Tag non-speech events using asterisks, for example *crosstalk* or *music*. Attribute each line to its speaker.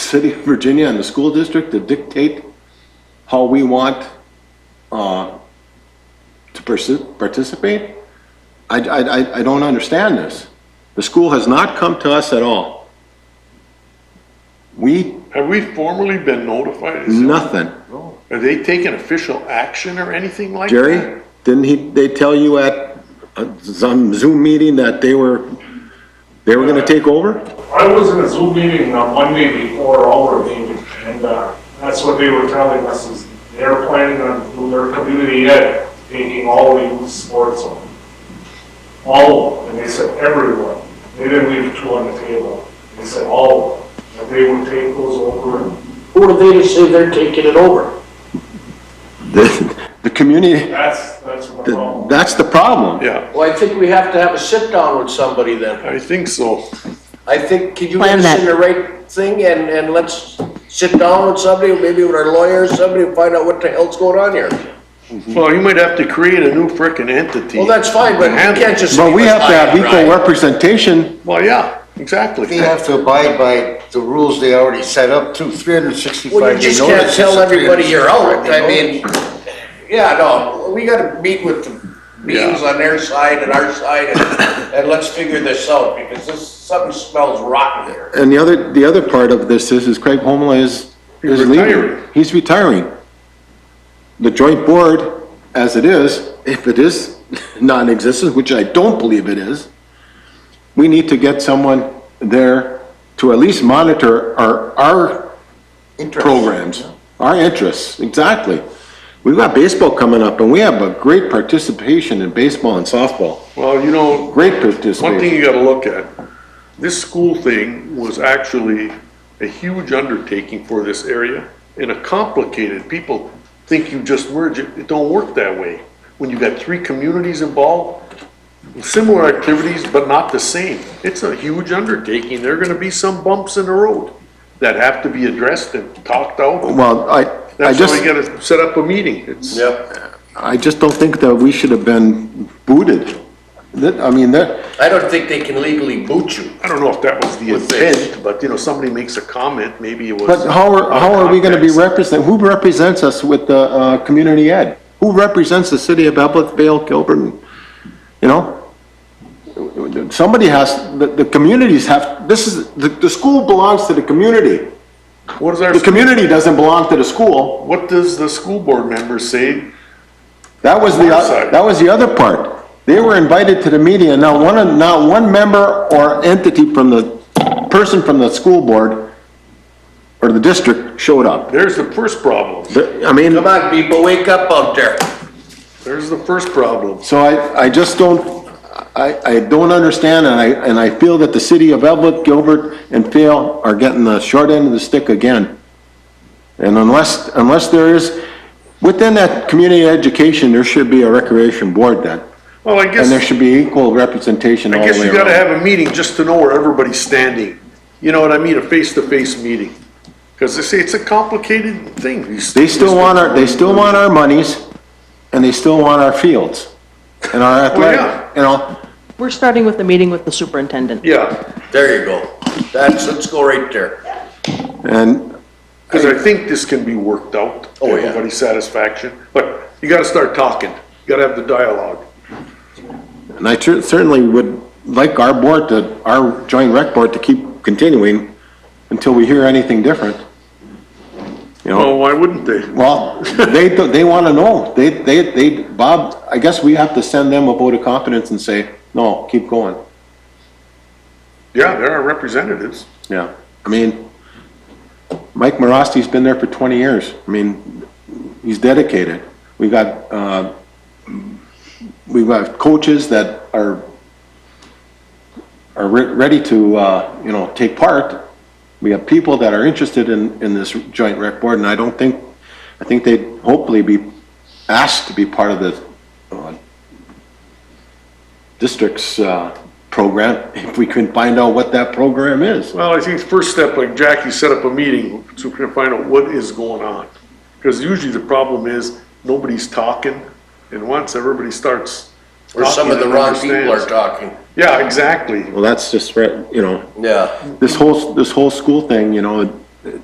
Speaker 1: city of Virginia and the school district to dictate how we want uh, to persi- participate? I, I, I- I don't understand this. The school has not come to us at all. We,
Speaker 2: Have we formally been notified? Is it-
Speaker 1: nothing.
Speaker 2: Have they taken official action or anything like that?
Speaker 1: Jerry, didn't he, they tell you at uh, some Zoom meeting that they were, they were gonna take over?
Speaker 3: I was in a Zoom meeting on Monday before our meeting, and uh, that's what they were telling us, is they're planning on doing their community ed, taking all the youth sports on. All of them, and they said everyone, they didn't leave two on the table, they said all of them, and they would take those over and
Speaker 4: Who are they to say they're taking it over?
Speaker 1: The, the community,
Speaker 3: that's, that's what the
Speaker 1: th-
Speaker 3: problem.
Speaker 1: that's the problem.
Speaker 2: Yeah,
Speaker 4: Well, I think we have to have a sit-down with somebody then.
Speaker 2: I think so.
Speaker 4: I think, can you get
Speaker 5: Plan
Speaker 4: us in
Speaker 5: that.
Speaker 4: the right thing and, and let's sit down with somebody, maybe with our lawyer, somebody, and find out what the hell's going on here.
Speaker 2: Well, you might have to create a new frickin' entity.
Speaker 4: Well, that's fine, but we can't just.
Speaker 1: But we have to have
Speaker 4: leave it lying,
Speaker 1: equal
Speaker 4: right?
Speaker 1: representation.
Speaker 2: Well, yeah, exactly.
Speaker 6: They have to abide by the rules they already set up to three hundred and sixty-five.
Speaker 4: Well, you just can't tell everybody you're out, I mean, yeah, no, we gotta meet with the beings
Speaker 2: Yeah.
Speaker 4: on their side and our side, and, and let's figure this out, because this, something smells rotten here.
Speaker 1: And the other, the other part of this is, is Craig Homla is,
Speaker 2: He's
Speaker 1: is
Speaker 2: retiring.
Speaker 1: leaving. He's retiring. The joint board, as it is, if it is non-existent, which I don't believe it is, we need to get someone there to at least monitor our, our programs, our interests, exactly. We've got baseball coming up, and we have a great participation in baseball and softball,
Speaker 2: Well, you know,
Speaker 1: great
Speaker 2: one thing
Speaker 1: participation.
Speaker 2: you gotta look at, this school thing was actually a huge undertaking for this area and a complicated, people think you just merge it, it don't work that way. When you got three communities involved, similar activities, but not the same. It's a huge undertaking, there are gonna be some bumps in the road that have to be addressed and talked out.
Speaker 1: Well, I, I
Speaker 2: That's why
Speaker 1: just.
Speaker 2: you gotta set up a meeting, it's.
Speaker 4: Yep.
Speaker 1: I just don't think that we should have been booted. That, I mean, that,
Speaker 4: I don't think they can legally boot you.
Speaker 2: I don't know if that was the
Speaker 4: With this.
Speaker 2: intent, but you know, somebody makes a comment, maybe it was.
Speaker 1: but how are, how are we gonna be represented, who represents us with the, uh, community ed? Who represents the city of Evelyn, Vale, Gilbert, you know? Somebody has, the, the communities have, this is, the, the school belongs to the community.
Speaker 2: What is our,
Speaker 1: The community doesn't belong to the school.
Speaker 2: what does the school board members say?
Speaker 1: That was the, oth- that was the other part. They were invited to the meeting, and not one, of- not one member or entity from the, person from the school board or the district showed up.
Speaker 2: There's the first problem.
Speaker 1: The- I mean,
Speaker 4: Come on, people, wake up out there.
Speaker 2: There's the first problem.
Speaker 1: so I, I just don't, I, I don't understand, and I, and I feel that the city of Evlith, Gilbert, and Fail are getting the short end of the stick again. And unless, unless there is, within that community education, there should be a recreation board then.
Speaker 2: Well, I
Speaker 1: And there
Speaker 2: guess,
Speaker 1: should be equal representation
Speaker 2: I
Speaker 1: all the
Speaker 2: guess
Speaker 1: way
Speaker 2: you gotta
Speaker 1: around.
Speaker 2: have a meeting just to know where everybody's standing. You know what I mean? A face-to-face meeting. Cause they say it's a complicated thing.
Speaker 1: They still want our, they still want our monies, and they still want our fields, and
Speaker 2: *laughs*
Speaker 1: our
Speaker 2: Oh, yeah.
Speaker 1: athletic, you know?
Speaker 5: We're starting with the meeting with the superintendent.
Speaker 2: Yeah,
Speaker 4: There you go. That's, let's go right there.
Speaker 1: And
Speaker 2: cause I think this can be worked out. to
Speaker 4: Oh, yeah.
Speaker 2: Everybody's satisfaction, but you gotta start talking. You gotta have the dialogue.
Speaker 1: And I cer- certainly would like our board to, our joint rec board to keep continuing until we hear anything different. You
Speaker 2: Oh,
Speaker 1: know,
Speaker 2: why wouldn't they?
Speaker 1: well, *laughs* they, they wanna know, they, they, they, Bob, I guess we have to send them a vote of confidence and say, no, keep going,
Speaker 2: Yeah, there are representatives.
Speaker 1: yeah. I mean, Mike Morosti's been there for twenty years, I mean, he's dedicated. We got, uh, we've got coaches that are are re- ready to, uh, you know, take part. We have people that are interested in, in this joint rec board, and I don't think, I think they'd hopefully be asked to be part of the, uh, district's, uh, program, *laughs* if we can find out what that program is.
Speaker 2: Well, I think the first step, like Jackie, set up a meeting so we can find out what is going on. Because usually the problem is nobody's talking and once everybody starts.
Speaker 4: Or some of the
Speaker 2: talking,
Speaker 4: wrong people are
Speaker 2: understands.
Speaker 4: talking.
Speaker 2: Yeah, exactly.
Speaker 1: Well, that's just, right, you know,
Speaker 4: Yeah.
Speaker 1: this whole, this whole school thing, you know,